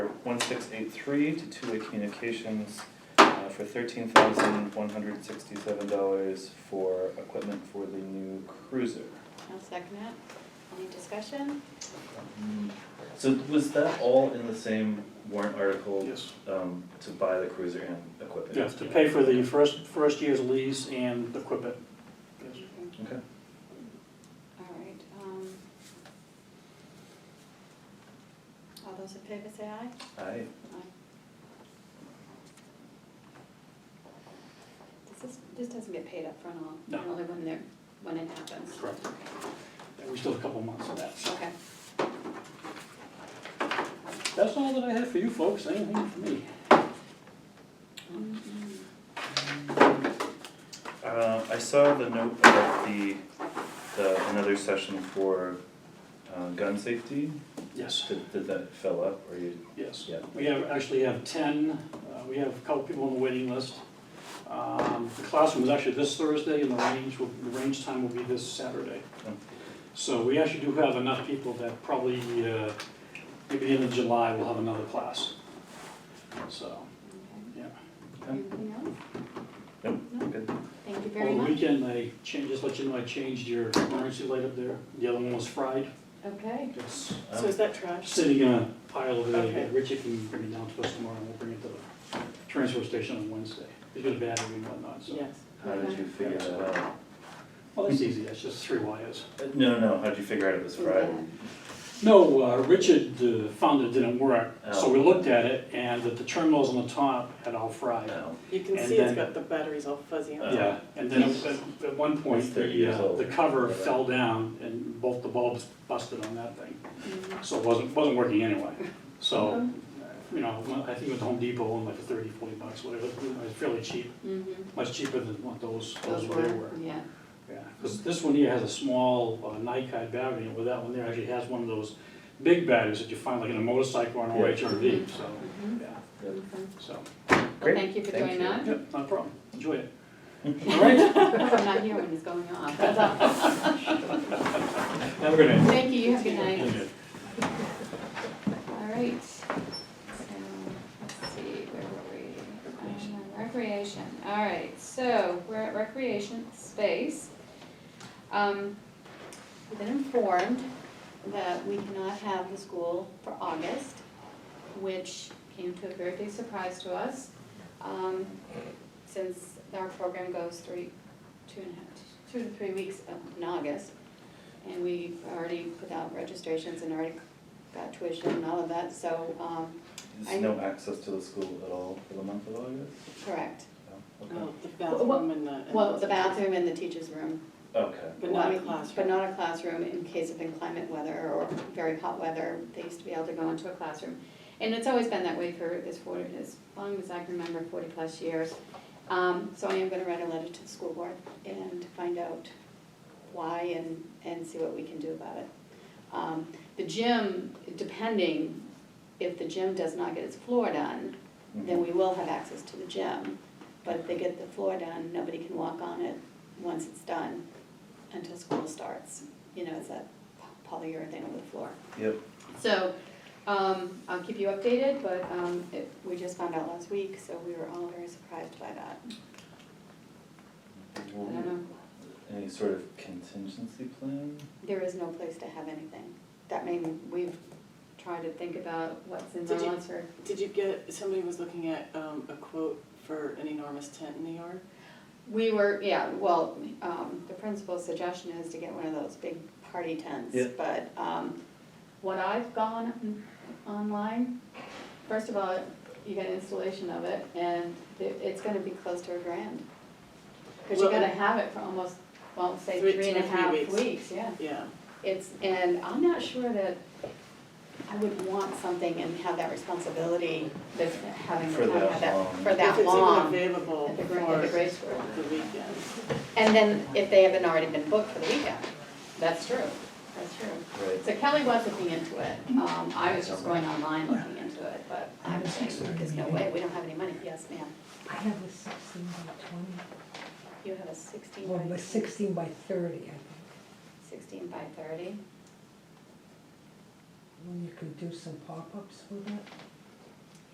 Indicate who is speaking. Speaker 1: one six eight three to two-way communications uh, for thirteen thousand one hundred sixty-seven dollars for equipment for the new cruiser.
Speaker 2: I'll second it. Any discussion?
Speaker 1: So was that all in the same warrant article?
Speaker 3: Yes.
Speaker 1: Um, to buy the cruiser and equipment?
Speaker 3: Yes, to pay for the first, first year's lease and equip it. Yes.
Speaker 1: Okay.
Speaker 2: All right, um. All those in favor say aye?
Speaker 1: Aye.
Speaker 2: This is, this doesn't get paid up front all,
Speaker 3: No.
Speaker 2: only when they're, when it happens.
Speaker 3: Correct. And we still have a couple months of that. so.
Speaker 2: Okay,
Speaker 3: That's all that I have for you folks, anything for me?
Speaker 1: Uh, I saw the note about the, the, another session for, uh, gun safety,
Speaker 3: Yes,
Speaker 1: did, did that fill up, or you?
Speaker 3: yes.
Speaker 1: Yeah.
Speaker 3: We have, actually have ten, uh, we have a couple people on the waiting list. Um, The classroom is actually this Thursday and the range, will the range time will be this Saturday.
Speaker 1: Oh.
Speaker 3: So we actually do have enough people that probably, uh, maybe the end of July, we'll have another class. So,
Speaker 2: okay.
Speaker 3: yeah.
Speaker 2: Anything else?
Speaker 1: Nope,
Speaker 2: No?
Speaker 1: good.
Speaker 2: Thank you very
Speaker 3: Over the
Speaker 2: much.
Speaker 3: weekend, I changed, just let you know, I changed your emergency light up there. The other one was fried.
Speaker 2: Okay,
Speaker 3: It's
Speaker 4: So
Speaker 1: Um,
Speaker 4: is that trash?
Speaker 3: sitting in a pile over
Speaker 4: Okay.
Speaker 3: there. Richard can bring it down to us tomorrow and we'll bring it to the transfer station on Wednesday. It's got a battery and whatnot, so.
Speaker 4: Yes.
Speaker 1: How did you figure that out?
Speaker 3: Well, that's easy. That's just three wires.
Speaker 1: Uh, No, no, how'd you figure out it was Friday?
Speaker 3: No, uh, Richard uh, found it didn't work, so we
Speaker 1: Oh.
Speaker 3: looked at it and that the terminals on the top had all fried.
Speaker 1: No,
Speaker 4: You can
Speaker 3: And
Speaker 4: see it's
Speaker 3: then-
Speaker 4: got the batteries all fuzzy on it.
Speaker 3: Yeah, and then at- at at one
Speaker 1: It's
Speaker 3: point,
Speaker 1: 30
Speaker 3: the,
Speaker 1: years
Speaker 3: uh,
Speaker 1: old.
Speaker 3: the cover fell down and both the bulbs busted on that thing. So it wasn't, wasn't working anyway. So, you know, when- I think it was Home Depot and like 30, 40 bucks, whatever, you know, it's fairly cheap,
Speaker 2: Mm-hmm.
Speaker 3: much cheaper than what those, those were. they were.
Speaker 2: Yeah,
Speaker 3: Yeah, because this one here has a small uh, Nikon battery, and with that one there actually has one of those big batteries that you find like in a motorcycle or an
Speaker 1: Yeah.
Speaker 3: OHRV, so,
Speaker 2: Mhm.
Speaker 3: yeah,
Speaker 1: Yep.
Speaker 2: okay. Well,
Speaker 3: so,
Speaker 1: Great,
Speaker 2: thank you for
Speaker 1: thank
Speaker 2: doing
Speaker 1: you.
Speaker 2: that.
Speaker 3: yep, not a problem, enjoy it. All right,
Speaker 2: I'm not here when it's going off, that's all.
Speaker 3: have a good night.
Speaker 2: Thank you, you have a good
Speaker 3: Thank
Speaker 2: night.
Speaker 3: you.
Speaker 2: All right, so, let's see, where were we? Uh, Recreation, all right, so, we're at recreation space. Um, we've been informed that we cannot have the school for August, which came to a very big surprise to us, um, since our program goes three, two and a half, two to three weeks in August. And we've already put out registrations and already got tuition and all of that, so, um, I-
Speaker 1: There's no access to the school at all for the month of August?
Speaker 2: correct.
Speaker 1: No?
Speaker 4: Oh, the
Speaker 2: Well,
Speaker 4: bathroom and the. and
Speaker 2: Well, the bathroom and the teacher's room.
Speaker 1: Okay, okay,
Speaker 4: But not a
Speaker 2: Well, But
Speaker 4: classroom.
Speaker 2: not a classroom in case of inclement weather or very hot weather, they used to be able to go into a classroom. And it's always been that way for as forty, as long as I can remember, forty plus years. Um, so I am gonna write a letter to the school board and find out why and, and see what we can do about it. Um, the gym, depending, if the gym does not get its floor done, then we will have access to the gym. But if they get the floor done, nobody can walk on it once it's done until school starts. You know, it's that polyurethane over the floor.
Speaker 1: yep,
Speaker 2: So, um, I'll keep you updated, but, um, it, we just found out last week, so we were all very surprised by that. I don't know,
Speaker 1: any sort of contingency plan?
Speaker 2: there is no place to have anything. That mean, we've tried to think about what's in
Speaker 4: Did you-
Speaker 2: Rollinsford.
Speaker 4: Did you get, somebody was looking at um, a quote for an enormous tent in New York?
Speaker 2: We were, yeah, well, um, the principal's suggestion is to get one of those big party tents.
Speaker 1: Yeah.
Speaker 2: But, um, what I've gone online, first of all, you get installation of it, and it, it's gonna be close to a grand. Cause you
Speaker 4: Well,
Speaker 2: gotta have it for almost, well, say
Speaker 4: Three-
Speaker 2: three and a
Speaker 4: two or three
Speaker 2: half
Speaker 4: weeks.
Speaker 2: weeks, yeah.
Speaker 4: Yeah,
Speaker 2: It's, and I'm not sure that I would want something and have that responsibility, that's having
Speaker 1: For
Speaker 2: the town
Speaker 1: that
Speaker 2: have that,
Speaker 1: long.
Speaker 2: for that long.
Speaker 4: If it's even available
Speaker 2: At the, gra- at the
Speaker 4: for
Speaker 2: grade school.
Speaker 4: the weekend.
Speaker 2: And then if they haven't already been booked for the weekend, that's true, that's true.
Speaker 1: Right.
Speaker 2: So Kelly was looking into it, um, I was just going online looking into it, but I was saying, there's no way, we don't have any money, yes, ma'am.
Speaker 5: I have a sixteen by
Speaker 2: You have a sixteen
Speaker 5: twenty, or
Speaker 2: by,
Speaker 5: a sixteen by thirty, I think,
Speaker 2: sixteen by thirty,
Speaker 5: when you could do some pop-ups with it.